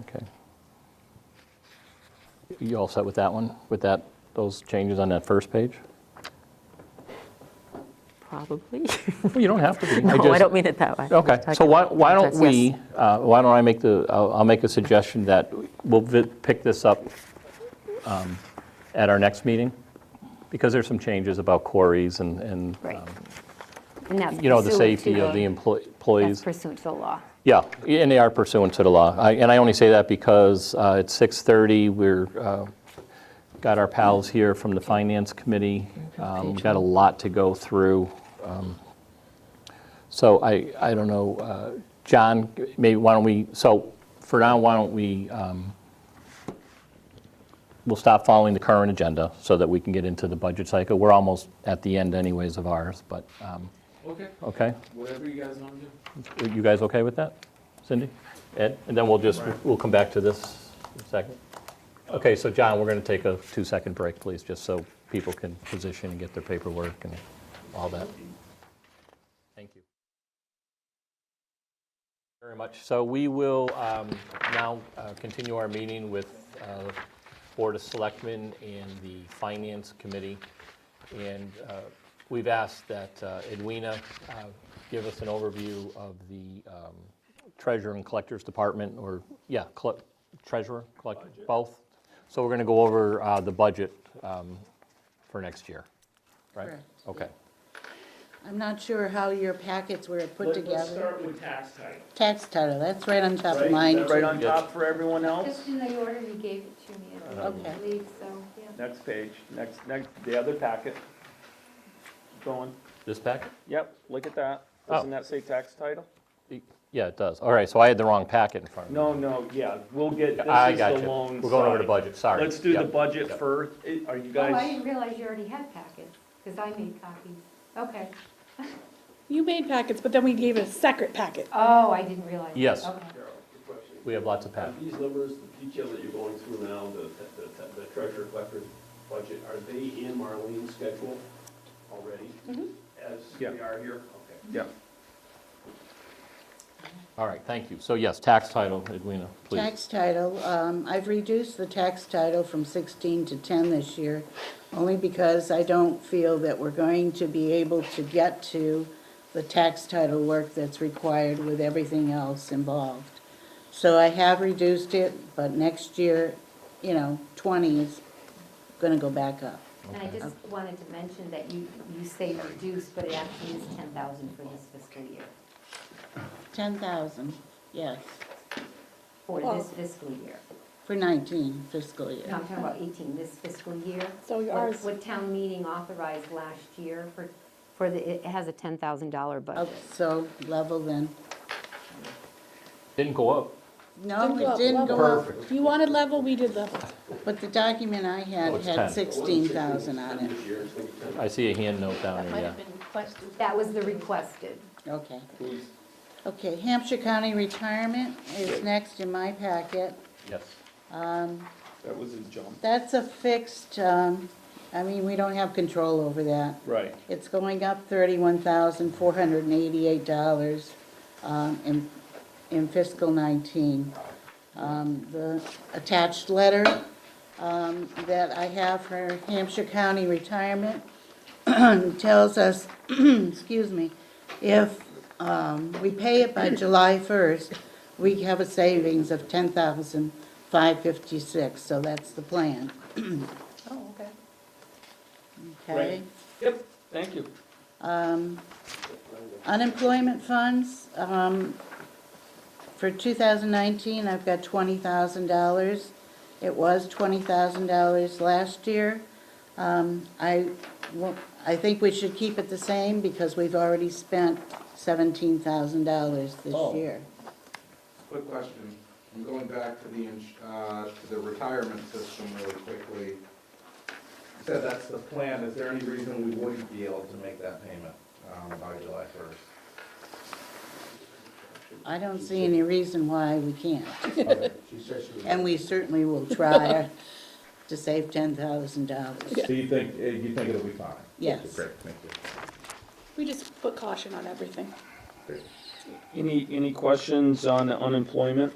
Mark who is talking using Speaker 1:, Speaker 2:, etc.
Speaker 1: Okay. You all set with that one, with that, those changes on that first page?
Speaker 2: Probably.
Speaker 1: You don't have to be.
Speaker 2: No, I
Speaker 1: just-
Speaker 2: don't mean it that way.
Speaker 1: Okay, so why why don't
Speaker 2: Contracts,
Speaker 1: we,
Speaker 2: yes.
Speaker 1: uh, why don't I make the, I'll I'll make a suggestion that we'll vi- pick this up um, at our next meeting, because there's some changes about quarries and- and,
Speaker 3: Right.
Speaker 1: um,
Speaker 3: And that's
Speaker 1: you know, the
Speaker 3: pursuant to
Speaker 1: safety of the employ-
Speaker 3: That's
Speaker 1: employees.
Speaker 3: pursuant to the law.
Speaker 1: Yeah, and they are pursuant to the law. I- And I only say that because uh, it's 6:30, we're, uh, got our pals here from the Finance Committee. Um, We've got a lot to go through. Um, So I, I don't know, uh, John, maybe why don't we, so for now, why don't we, um, we'll stop following the current agenda so that we can get into the budget cycle. We're almost at the end anyways of ours, but, um,
Speaker 4: Okay,
Speaker 1: okay?
Speaker 4: whatever you guys want to do.
Speaker 1: Are you guys okay with that, Cindy? Ed? And then we'll just, we'll come back to this in a second. Okay, so John, we're going to take a two-second break, please, just so people can position and get their paperwork and all that. Thank you. Very much. So we will um, now uh, continue our meeting with uh, Board of Selectmen and the Finance Committee. And uh, we've asked that uh, Edwina uh, give us an overview of the um, Treasurer and Collectors Department, or, yeah, colle- Treasurer, Collector, both. So we're going to go over uh, the budget um, for next year, right?
Speaker 5: Correct.
Speaker 1: Okay.
Speaker 5: I'm not sure how your packets were put
Speaker 6: Let- Let's
Speaker 5: together.
Speaker 6: start with tax title.
Speaker 5: Tax title, that's right on top
Speaker 6: Right,
Speaker 5: of
Speaker 6: Is
Speaker 5: mine.
Speaker 6: that right
Speaker 5: too.
Speaker 6: on
Speaker 1: Yes.
Speaker 6: top for everyone else?
Speaker 7: Just in the order you gave it to me, I think, I
Speaker 5: Okay.
Speaker 7: believe, so, yeah.
Speaker 6: Next page, next, next, the other packet. Going,
Speaker 1: This packet?
Speaker 6: yep, look at that.
Speaker 1: Oh.
Speaker 6: Doesn't that say tax title?
Speaker 1: Yeah, it does. All right, so I had the wrong packet in front of me.
Speaker 6: No, no, yeah, we'll get, this
Speaker 1: I
Speaker 6: is
Speaker 1: got
Speaker 6: the
Speaker 1: you.
Speaker 6: loan.
Speaker 1: We're going over the
Speaker 6: side.
Speaker 1: budget, sorry.
Speaker 6: Let's do the
Speaker 1: Yep.
Speaker 6: budget
Speaker 1: Yep.
Speaker 6: first. Eh, Are you
Speaker 7: Oh, I
Speaker 6: guys,
Speaker 7: didn't realize you already had packets, because I made copies. Okay.
Speaker 8: You made packets, but then we gave a separate packet.
Speaker 7: Oh, I didn't realize. that.
Speaker 1: Yes.
Speaker 7: Okay.
Speaker 1: We have lots of packets.
Speaker 9: These numbers, the detail that you're going through now, the, the, the treasurer collector's budget, are they in Marlene's schedule already? As we
Speaker 6: Yeah.
Speaker 9: are here? Okay.
Speaker 6: yeah,
Speaker 1: All right, thank you. So yes, tax title, Edwina, please.
Speaker 5: Tax title, um, I've reduced the tax title from 16 to 10 this year, only because I don't feel that we're going to be able to get to the tax title work that's required with everything else involved. So I have reduced it, but next year, you know, 20 is going to go back up.
Speaker 7: And I just wanted to mention that you, you say reduced, but it actually is ten thousand for this fiscal year,
Speaker 5: 10,000, yes,
Speaker 7: for this fiscal year.
Speaker 5: for 19 fiscal
Speaker 7: No,
Speaker 5: year.
Speaker 7: I'm talking about eighteen, this fiscal year.
Speaker 8: So
Speaker 7: What-
Speaker 8: ours-
Speaker 7: What town meeting authorized last year for, for the, it has a ten thousand dollar budget.
Speaker 5: Okay, So level then.
Speaker 1: Didn't go up.
Speaker 5: No,
Speaker 8: Didn't go
Speaker 5: it
Speaker 8: up,
Speaker 5: didn't go
Speaker 8: level.
Speaker 5: up,
Speaker 8: You wanted level, we did level.
Speaker 5: but the document I
Speaker 1: Oh,
Speaker 5: had
Speaker 1: it's 10.
Speaker 5: had 16,000 on it.
Speaker 9: This year, it's gonna be ten.
Speaker 1: I see a hand note down
Speaker 8: Might
Speaker 1: there,
Speaker 8: have
Speaker 1: yeah.
Speaker 8: been requested.
Speaker 7: That was the requested.
Speaker 5: Okay. Okay, Hampshire County Retirement is next in my packet.
Speaker 1: Yes.
Speaker 6: that was a jump.
Speaker 5: That's a fixed, um, I mean, we don't have control over that.
Speaker 6: Right,
Speaker 5: It's going up thirty-one thousand, four hundred and eighty-eight dollars, um, in, in fiscal nineteen. Um, the attached letter, um, that I have for Hampshire County Retirement tells us, excuse me, if, um, we pay it by July first, we have a savings of ten thousand, five fifty-six, so that's the plan,
Speaker 8: Oh, okay.
Speaker 5: okay? Um,
Speaker 6: yep, thank you.
Speaker 5: Unemployment funds, um, for 2019, I've got $20,000. It was $20,000 last year. Um, I, wa- I think we should keep it the same because we've already spent $17,000
Speaker 10: Oh.
Speaker 5: this year.
Speaker 10: Quick question. I'm going back to the, ins- uh, to the retirement system really quickly. You said that's the plan. Is there any reason we wouldn't be able to make that payment um, by July 1st?
Speaker 5: I don't see any reason why we can't.
Speaker 10: Okay. She said she was-
Speaker 5: And we certainly will try to save $10,000.
Speaker 10: So you think, uh, you think it'll be fine?
Speaker 5: Yes.
Speaker 10: Great, thank you.
Speaker 8: We just put caution on everything.
Speaker 10: Great.
Speaker 6: Any, any questions on unemployment?